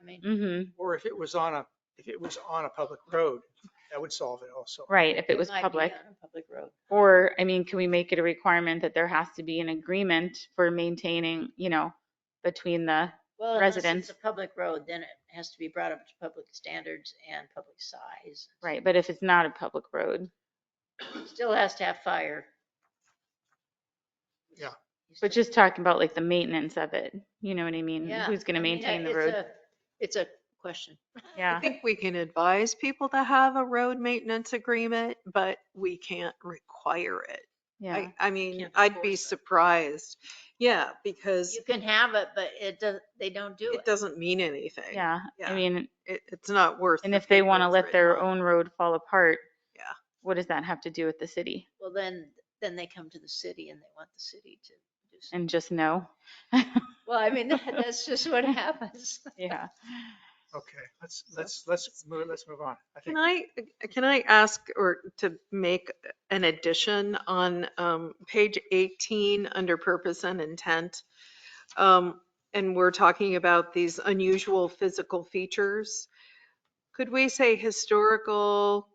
something, Mm-hmm, or if it was on a, if it was on a public road, that would solve it also. right, if it was might be public. on a Public road. Or, I mean, can we make it a requirement that there has to be an agreement for maintaining, you know, between the, Well, unless Residents. it's a public road, then it has to be brought up to public standards and public size. right, but if it's not a public road, Still has to have fire. Yeah. You but still- just talking about like the maintenance of it, you know what I mean? Yeah, Who's gonna I mean, maintain the it's road? a- It's a question. Yeah. I think we can advise people to have a road maintenance agreement, but we can't require it. Yeah, I, I mean, Can't I'd be enforce it. surprised. Yeah, because You can have it, but it does, they don't do it it. doesn't mean anything. yeah, I yeah. mean, It, it's not worth. and the if they want to paper it's let their written on. own road fall apart. Yeah. What does that have to do with the city? Well, then, then they come to the city and they want the city to do something. And just no? Well, I mean, that- that's just what happens. Yeah. Okay, let's, let's, let's move, let's move on. I Can think, I, can I ask or to make an addition on um, page 18 under purpose and intent? Um, And we're talking about these unusual physical features. Could we say historical,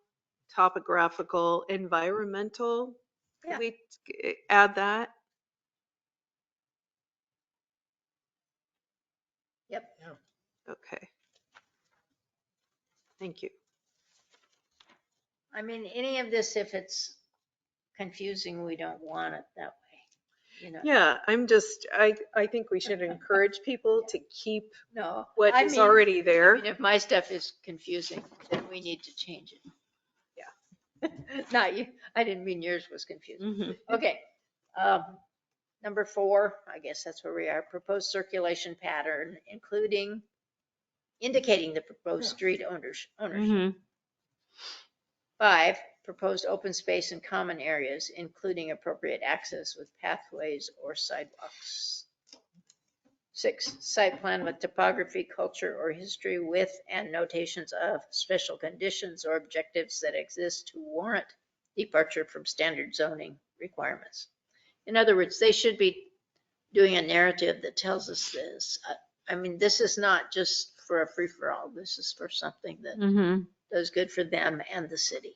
topographical, environmental? Yeah. Could we eh, add that? Yep. Yeah. Okay. Thank you. I mean, any of this, if it's confusing, we don't want it that way. You know, Yeah, I'm just, I, I think we should encourage people to keep no. what I is mean, already I there. mean, If my stuff is confusing, then we need to change it. Yeah. Not you, I didn't mean yours was confusing. Mhm. Mm-hmm. Okay. um, Number four, I guess that's where we are, proposed circulation pattern, including indicating the proposed street owners, Mm-hmm. ownership. Mhm. Five, proposed open space and common areas, including appropriate access with pathways or sidewalks. Six, site plan with topography, culture, or history with and notations of special conditions or objectives that exist to warrant departure from standard zoning requirements. In other words, they should be doing a narrative that tells us this. I- I mean, this is not just for a free-for-all. This is for something that Mhm. does good for them and the city.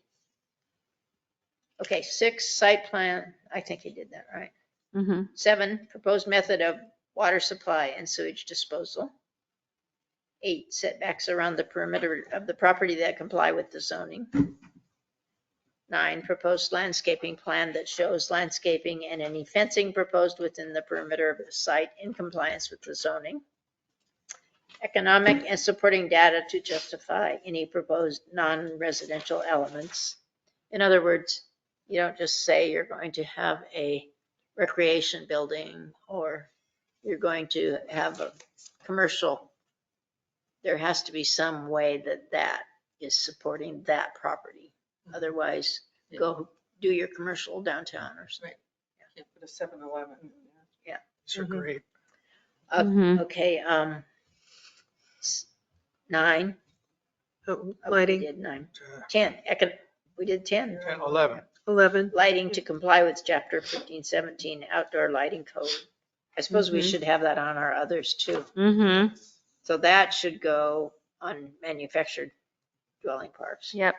Okay, six, site plan, I think he did that right. Mhm. Seven, proposed method of water supply and sewage disposal. Eight, setbacks around the perimeter of the property that comply with the zoning. Nine, proposed landscaping plan that shows landscaping and any fencing proposed within the perimeter of the site in compliance with the zoning. Economic and supporting data to justify any proposed non-residential elements. In other words, you don't just say you're going to have a recreation building or you're going to have a commercial. There has to be some way that that is supporting that property. Otherwise, go do your commercial downtown or something. Can't put a seven eleven. these are Mhm. great. Uh, Mhm. Okay, um, s- nine. Oh, Oh, we Lighting, did Nine, Uh, 10, econ, we did 10. And 11, 11, Lighting to comply with chapter 1517 outdoor lighting code. I suppose we Mhm. should have that on our others too. Mhm. So that should go on manufactured dwelling parks. Yep.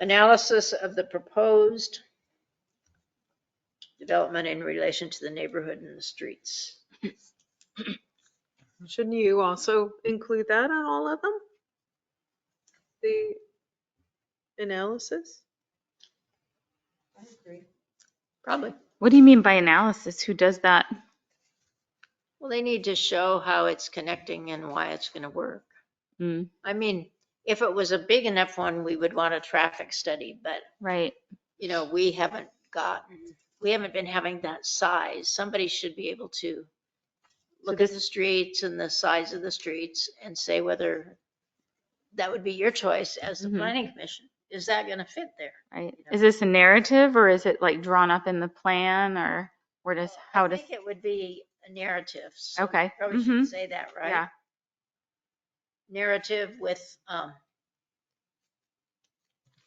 Analysis of the proposed development in relation to the neighborhood and the streets. shouldn't you also include that on all of them? The analysis? I agree. Probably. What do you mean by analysis? Who does that? Well, they need to show how it's connecting and why it's going to work. Mm, I mean, if it was a big enough one, we would want a traffic study, but Right. you know, we haven't gotten, Mm-hmm. we haven't been having that size. Somebody should be able to look at the streets and the size of the streets and say whether that would be your choice as the Mhm. planning commission. Is that going to fit there? Right. Yeah. Is this a narrative or is it like drawn up in the plan or where does, how I does, think it would be a narrative. so Okay, Probably mhm. should say that, right? yeah. Narrative with, um,